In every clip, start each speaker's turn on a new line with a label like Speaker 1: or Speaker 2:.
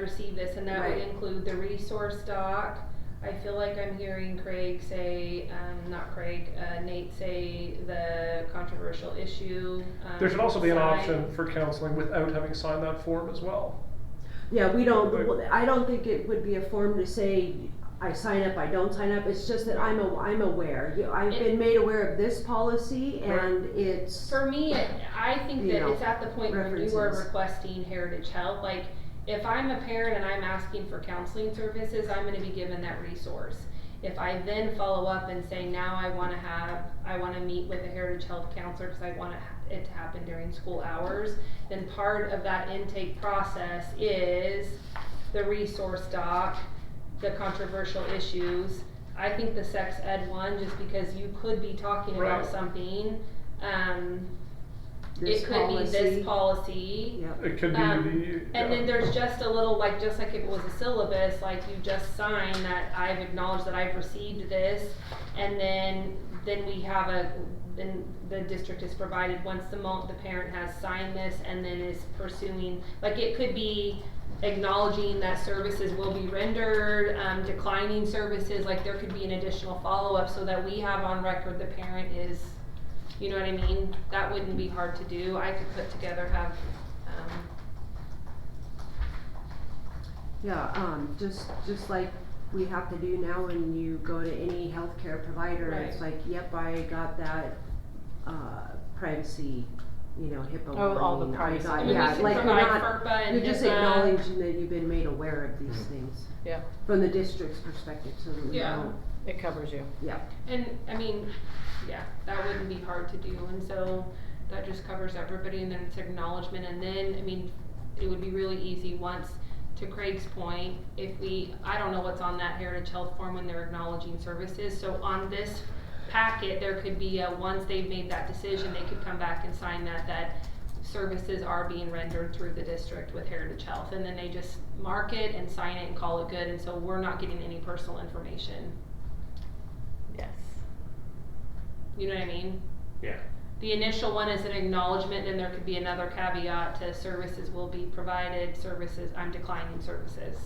Speaker 1: receive this, and that would
Speaker 2: Right.
Speaker 1: include the resource doc. I feel like I'm hearing Craig say, um, not Craig, uh, Nate say the controversial issue. um,
Speaker 3: There should also be an
Speaker 1: side.
Speaker 3: option for counseling without having signed that form as well.
Speaker 2: Yeah, we don't,
Speaker 3: Right.
Speaker 2: I don't think it would be a form to say, I sign up, I don't sign up, it's just that I'm a, I'm aware. You- I've been made aware of this policy and it's,
Speaker 1: For me, it- I think
Speaker 2: You
Speaker 1: that
Speaker 2: know,
Speaker 1: it's at the point when you are
Speaker 2: references.
Speaker 1: requesting Heritage Health, like, if I'm a parent and I'm asking for counseling services, I'm gonna be given that resource. If I then follow up and say, now I wanna have, I wanna meet with a Heritage Health counselor, cause I want it to happen during school hours, then part of that intake process is the resource doc, the controversial issues. I think the sex ed one, just because you could be talking
Speaker 3: Right.
Speaker 1: about something, um,
Speaker 2: this
Speaker 1: it could be
Speaker 2: policy.
Speaker 1: this policy.
Speaker 2: Yep.
Speaker 3: It could be
Speaker 1: Um,
Speaker 3: the.
Speaker 1: And
Speaker 3: yeah.
Speaker 1: then there's just a little, like, just like if it was a syllabus, like you just sign that I've acknowledged that I've received this. And then, then we have a, then the district is provided, once the mo- the parent has signed this and then is pursuing, like, it could be acknowledging that services will be rendered, um, declining services, like, there could be an additional follow-up so that we have on record the parent is, you know what I mean? That wouldn't be hard to do. I could put together, have, um,
Speaker 2: Yeah, um, just, just like we have to do now when you go to any healthcare provider, it's like, yep, I got that, uh, privacy, you know, HIPAA
Speaker 4: Oh, all the
Speaker 2: warning, I
Speaker 4: privacy.
Speaker 2: got,
Speaker 4: And we
Speaker 2: yeah,
Speaker 4: can
Speaker 2: like, you're
Speaker 1: provide
Speaker 2: not,
Speaker 1: FERPA and uh,
Speaker 2: You're just
Speaker 1: HIPAA.
Speaker 2: acknowledging that you've been made aware of these
Speaker 5: Mm-hmm.
Speaker 2: things.
Speaker 4: Yeah.
Speaker 2: From the district's perspective, so that we
Speaker 1: Yeah.
Speaker 2: don't,
Speaker 4: It covers you.
Speaker 2: yeah.
Speaker 1: And, I mean, yeah, that wouldn't be hard to do, and so that just covers everybody, and then it's acknowledgement, and then, I mean, it would be really easy once, to Craig's point, if we, I don't know what's on that Heritage Health form when they're acknowledging services, so on this packet, there could be a, once they've made that decision, they could come back and sign that, that services are being rendered through the district with Heritage Health, and then they just mark it and sign it and call it good, and so we're not getting any personal information,
Speaker 4: Yes.
Speaker 1: you know what I mean?
Speaker 3: Yeah.
Speaker 1: The initial one is an acknowledgement, and there could be another caveat to services will be provided, services, I'm declining services.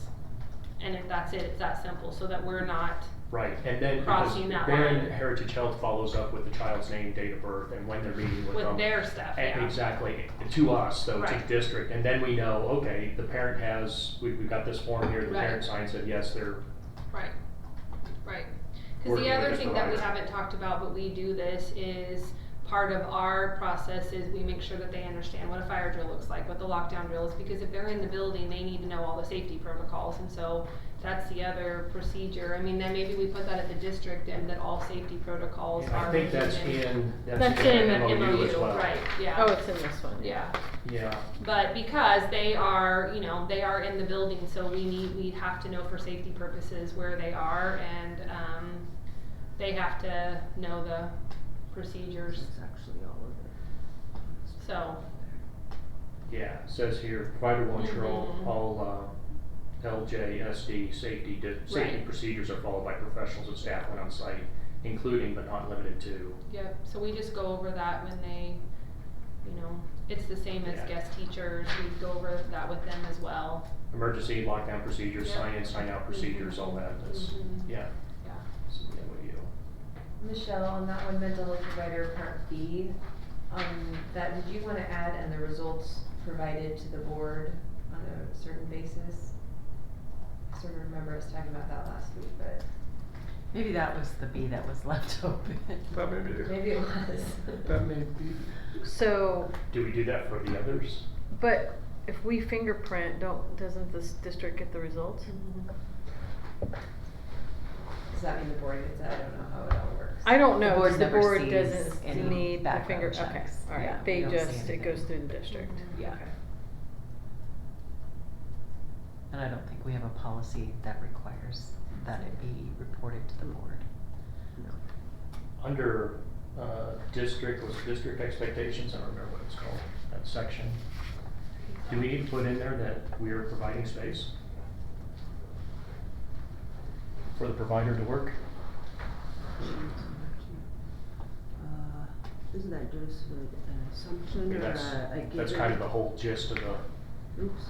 Speaker 1: And if that's it, it's that simple, so that we're not,
Speaker 5: Right, and then because
Speaker 1: Crossing that line.
Speaker 5: then Heritage Health follows up with the child's name, date of birth, and when they're meeting with them.
Speaker 1: with their stuff,
Speaker 5: E-
Speaker 1: yeah.
Speaker 5: Exactly, to us, though, to
Speaker 1: Right.
Speaker 5: district, and then we know, okay, the parent has, we, we've got this form here, the
Speaker 1: Right.
Speaker 5: parent signs it, yes, they're,
Speaker 1: Right, right. Cause
Speaker 5: Working
Speaker 1: the
Speaker 5: with
Speaker 1: other
Speaker 5: this
Speaker 1: thing that we
Speaker 5: provider.
Speaker 1: haven't talked about, but we do this, is part of our process is we make sure that they understand what a fire drill looks like, what the lockdown drill is, because if they're in the building, they need to know all the safety protocols, and so that's the other procedure. I mean, then maybe we put that at the district and that all safety protocols
Speaker 5: I
Speaker 1: are.
Speaker 5: think that's
Speaker 1: written
Speaker 5: in, that's
Speaker 4: That's
Speaker 5: in
Speaker 4: in
Speaker 5: the
Speaker 4: an
Speaker 5: MOU as well.
Speaker 1: Right,
Speaker 4: Oh,
Speaker 1: yeah,
Speaker 4: it's in this one.
Speaker 1: yeah.
Speaker 5: Yeah,
Speaker 1: But because they are, you know, they are in the building, so we need, we have to know for safety purposes where they are and, um, they have to know the procedures,
Speaker 2: It's actually all of
Speaker 1: so.
Speaker 5: yeah, it says here, provider will ensure all,
Speaker 1: Mhm.
Speaker 5: all, uh, LJSD safety, di- safety
Speaker 1: Right.
Speaker 5: procedures are followed by professionals and staff when on site, including but not limited to.
Speaker 1: Yep, so we just go over that when they, you know, it's the same as
Speaker 5: Yeah.
Speaker 1: guest teachers, we go over that with them as well.
Speaker 5: Emergency lockdown procedures,
Speaker 1: Yeah. Mm-hmm.
Speaker 5: sign in, sign out procedures, all that, that's,
Speaker 1: Mhm.
Speaker 5: yeah.
Speaker 1: Yeah.
Speaker 5: It's in the MOU.
Speaker 6: Michelle, on that one, mental health provider part B, um, that, did you wanna add and the results provided to the board on a certain basis? I sort of remember us talking about that last week, but
Speaker 7: Maybe that was the B that was left open.
Speaker 3: That may be,
Speaker 6: maybe it was.
Speaker 3: that may be,
Speaker 4: So,
Speaker 5: Do we do that for the others?
Speaker 4: but if we fingerprint, don't, doesn't this district get the results?
Speaker 7: Mm-hmm.
Speaker 6: Does that mean the board gets that? I don't know how it all works.
Speaker 4: I don't know,
Speaker 7: board
Speaker 4: 'cause the
Speaker 7: never
Speaker 4: board
Speaker 7: sees
Speaker 4: doesn't
Speaker 7: any
Speaker 4: need the
Speaker 7: background
Speaker 4: finger, okay,
Speaker 7: checks. Yeah,
Speaker 4: alright,
Speaker 7: we
Speaker 4: they
Speaker 7: don't see
Speaker 4: just, it
Speaker 7: anything. Mm-hmm.
Speaker 4: goes through the district.
Speaker 7: Yeah.
Speaker 4: Okay.
Speaker 7: And I don't think we have a policy that requires that it be reported to the board.
Speaker 5: Under uh, district, was it district expectations, I don't remember what it's called, that section. Do we need to put in there that we are providing space? For the provider to work?
Speaker 2: it. Uh, Isn't that just an assumption
Speaker 5: I mean,
Speaker 2: or
Speaker 5: that's,
Speaker 2: a a given?
Speaker 5: that's kind of the whole gist of the,
Speaker 2: Oops,